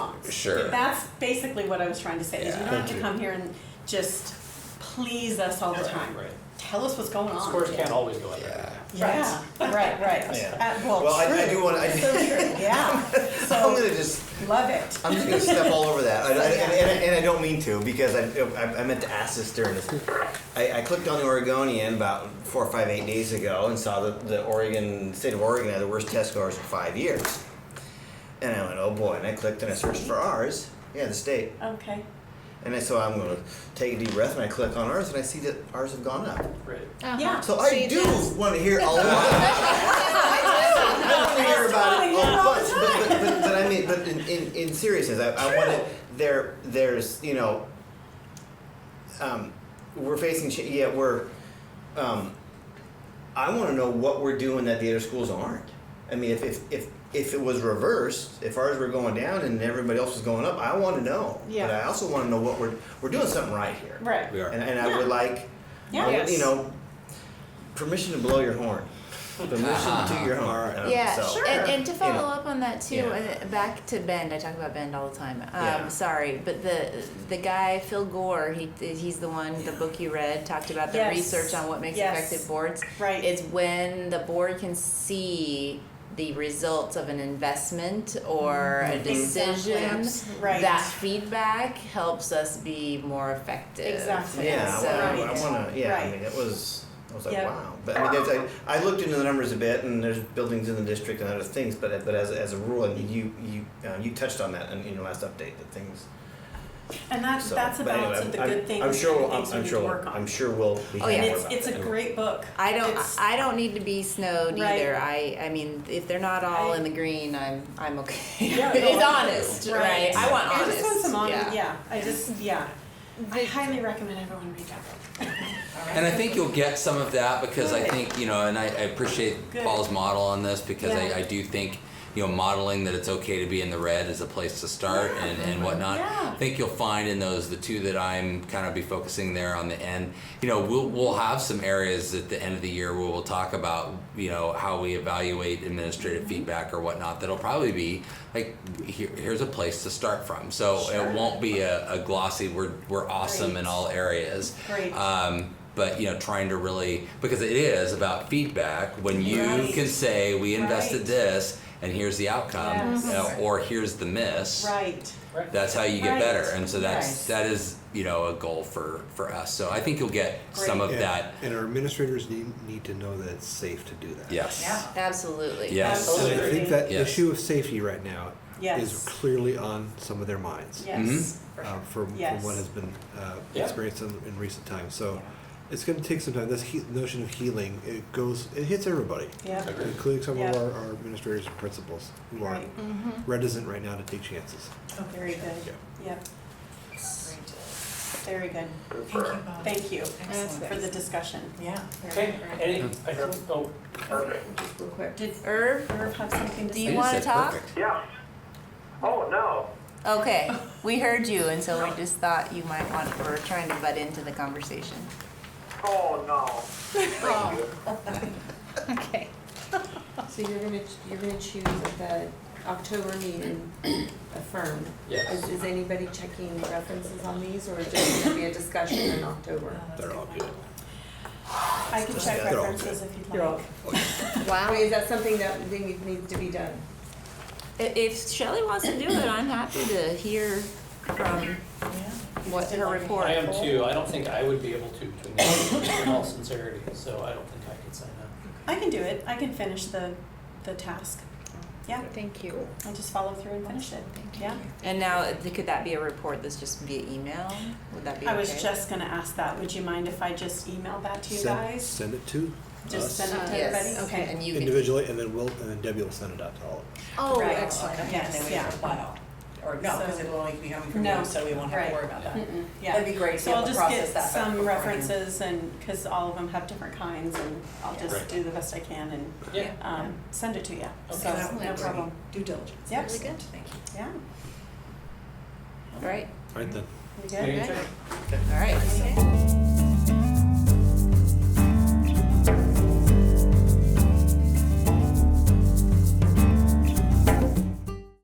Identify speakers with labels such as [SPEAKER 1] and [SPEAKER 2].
[SPEAKER 1] Sure.
[SPEAKER 2] That's basically what I was trying to say, is you
[SPEAKER 1] Yeah.
[SPEAKER 2] don't have
[SPEAKER 3] Thank
[SPEAKER 2] to
[SPEAKER 3] you.
[SPEAKER 2] come here and just please us all the
[SPEAKER 4] Right,
[SPEAKER 2] time.
[SPEAKER 4] right.
[SPEAKER 2] Tell us what's going on.
[SPEAKER 4] Scores can't always go up.
[SPEAKER 1] Yeah.
[SPEAKER 2] Yeah, right, right.
[SPEAKER 3] Yeah.
[SPEAKER 2] Uh, Well,
[SPEAKER 1] Well, I, I
[SPEAKER 2] true.
[SPEAKER 1] do want to.
[SPEAKER 2] Yeah,
[SPEAKER 1] I'm gonna
[SPEAKER 2] so,
[SPEAKER 1] just.
[SPEAKER 2] love it.
[SPEAKER 1] I'm just gonna step all over that, I, I, and, and, I-
[SPEAKER 2] Yeah.
[SPEAKER 1] and I don't mean to because I, I, I meant to ask this during this. I, I clicked on the Oregonian about four, five, eight days ago and saw that the Oregon state of Oregon had the worst test scores in five years, and I went, oh boy, and I clicked and I searched for ours. Yeah, the state.
[SPEAKER 2] Okay,
[SPEAKER 1] And I, so I'm gonna take a deep breath and I click on ours and I see that ours have gone up.
[SPEAKER 4] Right.
[SPEAKER 5] Uh-huh.
[SPEAKER 2] yeah.
[SPEAKER 1] So I
[SPEAKER 5] you
[SPEAKER 1] do
[SPEAKER 5] just-
[SPEAKER 1] want to hear a lot. I want to hear about it
[SPEAKER 2] That's fine,
[SPEAKER 1] a
[SPEAKER 2] yeah, all
[SPEAKER 1] bunch, but, but, but, but I mean, but in, in, in seriousness, I, I want to. There, there's you know, um, we're facing. Ch- yeah, we're. Um, I want to know what we're doing that the other schools aren't. I mean, if if if, if it was reversed, if ours were going down and everybody else was going up, I want to know.
[SPEAKER 2] Yeah.
[SPEAKER 1] But I also want to know what we're we're doing something right here.
[SPEAKER 2] Right.
[SPEAKER 3] We are.
[SPEAKER 1] And, and I would like.
[SPEAKER 2] Yeah.
[SPEAKER 1] I would-
[SPEAKER 2] Yes.
[SPEAKER 1] You know, permission to blow your horn. Permission to your horn. um,
[SPEAKER 5] Yeah,
[SPEAKER 1] so,
[SPEAKER 5] and, and to
[SPEAKER 1] you
[SPEAKER 5] follow
[SPEAKER 1] know.
[SPEAKER 5] up on that too,
[SPEAKER 1] Yeah.
[SPEAKER 5] and back to Bend. I talk about Bend all the time. Um,
[SPEAKER 1] Yeah.
[SPEAKER 5] Sorry, but the the guy Phil Gore, he he's the one. The book you read talked about the
[SPEAKER 2] Yes.
[SPEAKER 5] research on what makes
[SPEAKER 2] Yes.
[SPEAKER 5] effective boards.
[SPEAKER 2] Right.
[SPEAKER 5] It's when the board can see the results of an investment or a
[SPEAKER 2] Mm-hmm. Exactly.
[SPEAKER 5] decision.
[SPEAKER 2] Right.
[SPEAKER 5] That feedback helps us be more effective.
[SPEAKER 2] Exactly.
[SPEAKER 1] Yeah,
[SPEAKER 5] So-
[SPEAKER 1] I, wanna- I
[SPEAKER 2] Right.
[SPEAKER 1] wanna, yeah, I
[SPEAKER 2] Right.
[SPEAKER 1] mean, it was, I was like,
[SPEAKER 2] Yeah.
[SPEAKER 1] wow. But I mean, there's, I, I looked into the numbers a bit and there's buildings in the district and other things, but, but as, as a rule, and you, you, uh, you touched on that in, in your last update, that things,
[SPEAKER 2] And that's,
[SPEAKER 1] so.
[SPEAKER 2] that's a
[SPEAKER 1] but anyway,
[SPEAKER 2] balance of the
[SPEAKER 1] I'm-
[SPEAKER 2] good things
[SPEAKER 1] I'm
[SPEAKER 2] and
[SPEAKER 1] sure,
[SPEAKER 2] the
[SPEAKER 1] we'll- I'm,
[SPEAKER 2] things we
[SPEAKER 1] I'm
[SPEAKER 2] need
[SPEAKER 1] sure,
[SPEAKER 2] to
[SPEAKER 1] we'll-
[SPEAKER 2] work on.
[SPEAKER 1] I'm sure we'll be
[SPEAKER 5] Oh,
[SPEAKER 1] hearing
[SPEAKER 2] And
[SPEAKER 1] more
[SPEAKER 5] yeah.
[SPEAKER 2] it's,
[SPEAKER 1] about
[SPEAKER 2] it's
[SPEAKER 1] that.
[SPEAKER 2] a great book.
[SPEAKER 5] I don't.
[SPEAKER 2] It's-
[SPEAKER 5] I don't need to be snowed
[SPEAKER 2] Right.
[SPEAKER 5] either. I. I mean, if they're not all
[SPEAKER 2] Right.
[SPEAKER 5] in the green, I'm. I'm okay.
[SPEAKER 2] Yeah,
[SPEAKER 5] it's
[SPEAKER 2] no, I-
[SPEAKER 5] honest, right. I want
[SPEAKER 2] I
[SPEAKER 5] honest.
[SPEAKER 2] just want some honest,
[SPEAKER 5] yeah.
[SPEAKER 2] yeah, I just, yeah. I highly recommend everyone read that book.
[SPEAKER 3] And I think you'll get some of that because I think, you know, and I, I appreciate
[SPEAKER 2] Good.
[SPEAKER 3] Paul's model on this because
[SPEAKER 2] Yeah.
[SPEAKER 3] I, I do think, you know, modeling that it's okay to be in the red is a place to start and, and
[SPEAKER 5] Uh,
[SPEAKER 3] whatnot.
[SPEAKER 2] Yeah.
[SPEAKER 3] I think you'll find in those the two that I'm kind of be focusing there on the end. You know, we'll we'll have some areas at the end of the year where we'll talk about, you know, how we evaluate
[SPEAKER 2] Mm-hmm.
[SPEAKER 3] administrative feedback or whatnot. That'll probably be like here, here's a place to start from. So
[SPEAKER 2] Sure.
[SPEAKER 3] it won't be a, a glossy we're we're awesome in
[SPEAKER 2] Great.
[SPEAKER 3] all areas.
[SPEAKER 2] Great.
[SPEAKER 5] uh,
[SPEAKER 3] Um, but you know, trying to really because it is about feedback. When you
[SPEAKER 2] Right.
[SPEAKER 3] can say we invested
[SPEAKER 2] Right.
[SPEAKER 3] this and here's the outcome,
[SPEAKER 2] Yes.
[SPEAKER 3] you know, or here's the miss.
[SPEAKER 2] Right,
[SPEAKER 4] Right.
[SPEAKER 3] That's how you get
[SPEAKER 2] Right.
[SPEAKER 3] better, and so that's
[SPEAKER 5] Right.
[SPEAKER 3] that is you know a goal for for us. So I think you'll get some
[SPEAKER 2] Great.
[SPEAKER 3] of
[SPEAKER 6] And-
[SPEAKER 3] that.
[SPEAKER 6] And our administrators need, need to know that it's safe to do that.
[SPEAKER 3] Yes.
[SPEAKER 2] Yeah.
[SPEAKER 5] Absolutely.
[SPEAKER 3] Yes.
[SPEAKER 6] And
[SPEAKER 2] Absolutely.
[SPEAKER 6] I Oh, think that the
[SPEAKER 3] Yes.
[SPEAKER 6] issue of safety right now
[SPEAKER 2] Yes.
[SPEAKER 6] is clearly on some of their minds.
[SPEAKER 2] yes.
[SPEAKER 5] Mm-hmm.
[SPEAKER 2] for sure.
[SPEAKER 6] uh, From, from
[SPEAKER 2] Yes.
[SPEAKER 6] what has been uh,
[SPEAKER 4] Yeah.
[SPEAKER 6] experienced in, in recent times, so
[SPEAKER 2] Yeah.
[SPEAKER 6] it's gonna take some time, this he- notion of healing, it goes, it hits everybody.
[SPEAKER 2] Yeah,
[SPEAKER 6] Including some of
[SPEAKER 2] Yeah.
[SPEAKER 6] our, our administrators and principals who are
[SPEAKER 2] Right. Mm-hmm.
[SPEAKER 6] reticent right now to take chances.
[SPEAKER 2] Oh, very good, yep, very good.
[SPEAKER 7] Thank you both.
[SPEAKER 2] Thank you
[SPEAKER 7] Excellent.
[SPEAKER 2] for the discussion.
[SPEAKER 7] Yeah.
[SPEAKER 4] Okay, any, I don't, oh,
[SPEAKER 2] Just real quick, did
[SPEAKER 5] Irv,
[SPEAKER 2] Irv have something to
[SPEAKER 5] do
[SPEAKER 2] say?
[SPEAKER 5] you
[SPEAKER 3] You
[SPEAKER 5] want to
[SPEAKER 3] said
[SPEAKER 5] talk?
[SPEAKER 3] perfect.
[SPEAKER 8] Yeah. Oh, no.
[SPEAKER 5] Okay, we heard you, and so we just thought you might want. We're trying to butt into the conversation.
[SPEAKER 8] Oh, no. Thank you.
[SPEAKER 5] Okay.
[SPEAKER 7] So you're gonna, you're gonna choose at the October meeting a firm?
[SPEAKER 4] Yes.
[SPEAKER 7] Is, is anybody checking references on these, or is it gonna be a discussion in October?
[SPEAKER 6] They're all good.
[SPEAKER 2] I can check
[SPEAKER 6] They're all
[SPEAKER 2] references if you'd like.
[SPEAKER 7] They're all- I
[SPEAKER 5] Wow.
[SPEAKER 7] mean, is that something that we think needs to be done?
[SPEAKER 5] If Shelley wants to do it, I'm happy to hear from what her report.
[SPEAKER 4] I am too, I don't think I would be able to, between the- in all sincerity, so I don't think I could sign up.
[SPEAKER 2] I can do it, I can finish the, the task. Yeah,
[SPEAKER 5] Thank you.
[SPEAKER 2] I'll just follow through and finish it, yeah.
[SPEAKER 5] And now, th- could that be a report that's just via email? Would that be okay?
[SPEAKER 2] I was just gonna ask that, would you mind if I just email that to you
[SPEAKER 6] Send-
[SPEAKER 2] guys?
[SPEAKER 6] Send it to
[SPEAKER 2] Just
[SPEAKER 6] us
[SPEAKER 2] send it to
[SPEAKER 5] Yes.
[SPEAKER 2] everybody, okay.
[SPEAKER 5] And you can.
[SPEAKER 6] individually, and then we'll, and then Debbie will send it out to all of us.
[SPEAKER 5] Oh,
[SPEAKER 2] Right.
[SPEAKER 5] excellent.
[SPEAKER 2] okay. Yes,
[SPEAKER 7] Then we
[SPEAKER 2] yeah.
[SPEAKER 7] don't file. Or
[SPEAKER 2] no, 'cause it'll
[SPEAKER 7] only be coming
[SPEAKER 2] from you, No, so
[SPEAKER 7] we won't
[SPEAKER 2] have to right. worry
[SPEAKER 7] about
[SPEAKER 2] Mm-mm, yeah.
[SPEAKER 7] That'd be great to be able to process that
[SPEAKER 2] So I'll just get some
[SPEAKER 7] beforehand.
[SPEAKER 2] references and, because all of them have different kinds and I'll just
[SPEAKER 4] Right.
[SPEAKER 2] do the best I can and,
[SPEAKER 4] Yeah,
[SPEAKER 2] um, send it to you.
[SPEAKER 4] Okay.
[SPEAKER 2] So, no
[SPEAKER 5] Excellent.
[SPEAKER 2] problem.
[SPEAKER 7] Due diligence.
[SPEAKER 2] Yep.
[SPEAKER 5] Really good.
[SPEAKER 7] Thank you.
[SPEAKER 2] Yeah,
[SPEAKER 5] Right,
[SPEAKER 6] All right then.
[SPEAKER 2] you
[SPEAKER 3] Mm-hmm.
[SPEAKER 4] Maybe
[SPEAKER 2] good?
[SPEAKER 4] check.
[SPEAKER 5] all right.